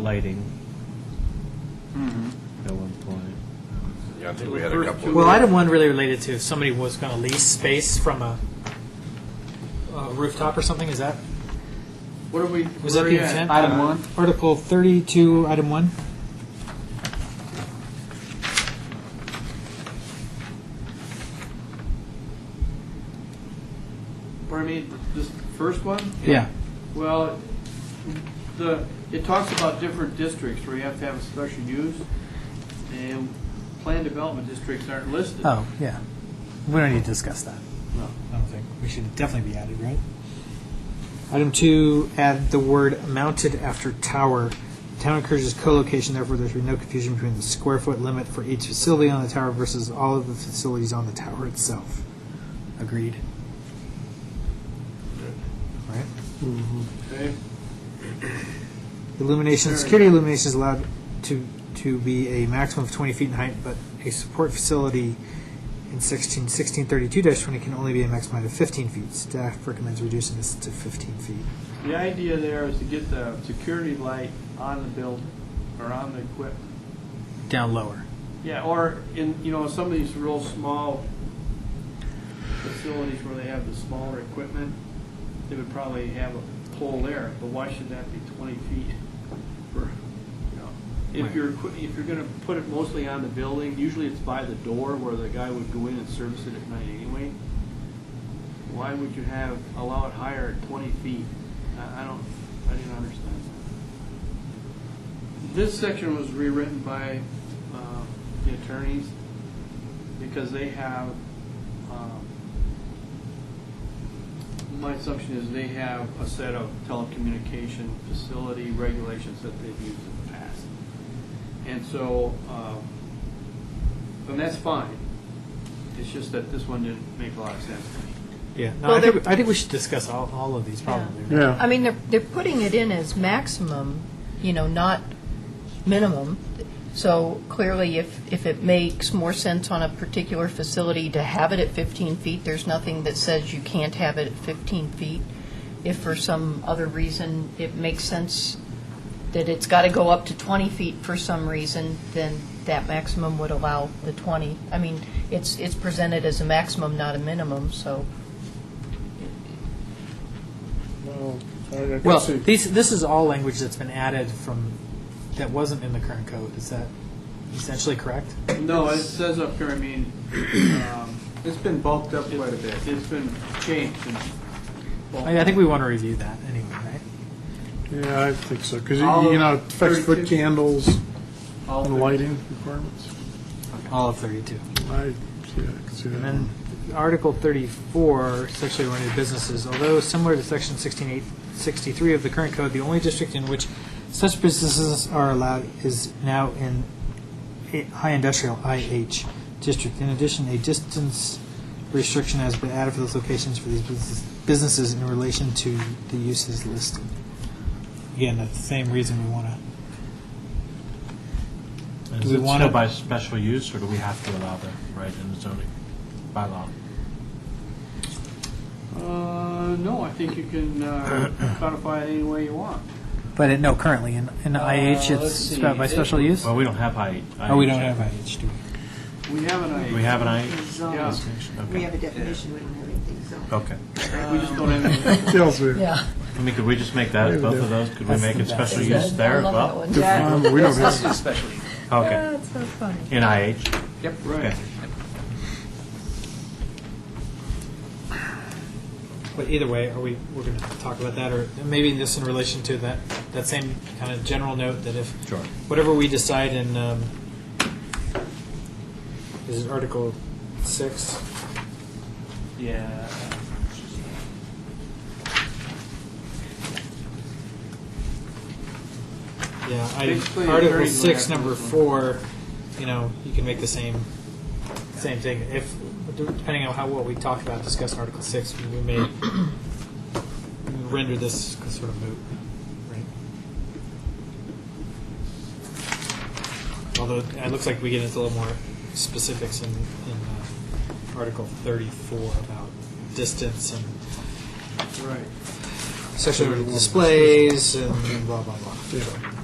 lighting Mm-hmm. at one point. Yeah, I think we had a couple of. Well, item one really related to if somebody was going to lease space from a, a rooftop or something, is that, What are we? was that the intent? Item one. Article thirty-two, item one? What I mean, this first one? Yeah. Well, the, it talks about different districts where you have to have a special use, and planned development districts aren't listed. Oh, yeah. We don't need to discuss that. No. I don't think, we should definitely be added, right? Item two, add the word mounted after tower. The Town encourages co-location, therefore there should be no confusion between the square foot limit for each facility on the tower versus all of the facilities on the tower itself. Agreed. Right? Okay, Illumination, Sure. security illumination is allowed to, to be a maximum of 20 feet in height, but a support facility in 16, 1632-20 can only be a maximum height of 15 feet. Staff recommends reducing this to 15 feet. the idea there is to get the security light on the building, or on the equipment. Down lower. Yeah, or in, you know, some of these real small facilities where they have the smaller equipment, they would probably have a pole there, but why should that be twenty feet? for, you know, Right. If you're, equi- if you're gonna put it mostly on the building, usually it's by the door where the guy would go in and service it at night anyway. Why would you have, allow it higher at twenty feet? I, I don't, I didn't understand that. This section was rewritten by um, the attorneys because they have, um, my assumption is they have a set of telecommunication facility regulations that they've used in the past. And so, um, and that's fine. It's just that this one didn't make a lot of sense to me. Yeah, no, Well, I, think, there- I think we should discuss all, all of these probably. right? I mean, they're, they're putting it in as maximum, you know, not minimum. So clearly, if, if it makes more sense on a particular facility to have it at 15 feet, there's nothing that says you can't have it at 15 feet. If for some other reason it makes sense that it's got to go up to 20 feet for some reason, then that maximum would allow the 20. I mean, it's, it's presented as a maximum, not a minimum, so. Well, these, this is all language that's been added from, that wasn't in the current code. Is that essentially correct? No, it says up here, I mean, um, It's been bulked up quite a bit. it- it's been changed and. I, I think we want to review that anyway, right? Yeah, I think so, because, All you know, of fixed foot 32? candles All and the- lighting requirements. All of 32. I, yeah, I can see And that. then Article 34, sexually oriented businesses, although similar to Section 16863 of the current code, the only district in which such businesses are allowed is now in a- high industrial IH district. In addition, a distance restriction has been added for those locations for these business- businesses in relation to the uses listed. Again, that's the same reason we want to Is we it wanna- still by special use, or do we have to allow that right in the zoning bylaw? Uh, no, I think you can uh, codify it any way you want. But it, no, currently, in, in IH, let's it's see. spe- by special use? Well, we don't have I. E. Oh, we don't have IH, do we? We have an Do we idea. have an I? E? Yeah. Zone. We have a definition, we don't have anything zoned. Okay. We just don't have. It tells me, Yeah. I mean, could we just make that, both of those, could we make it special use there I as love that well? one. um, we don't have, Especially. Okay, That's so funny. in IH, Yep. okay. But either way, are we, we're going to talk about that, or maybe this in relation to that, that same kind of general note that if, Sure. whatever we decide in, um, is it Article 6? Yeah. Yeah, Basically, I, a Article very six, good number application. four, you know, you can make the same, same thing. If, depending on how, what we talk about, discuss Article six, we may render this sort of moot, right? Although, it looks like we get into a little more specifics in, in uh, Article thirty-four about distance and Right. sexual displays and blah, blah, blah. yeah.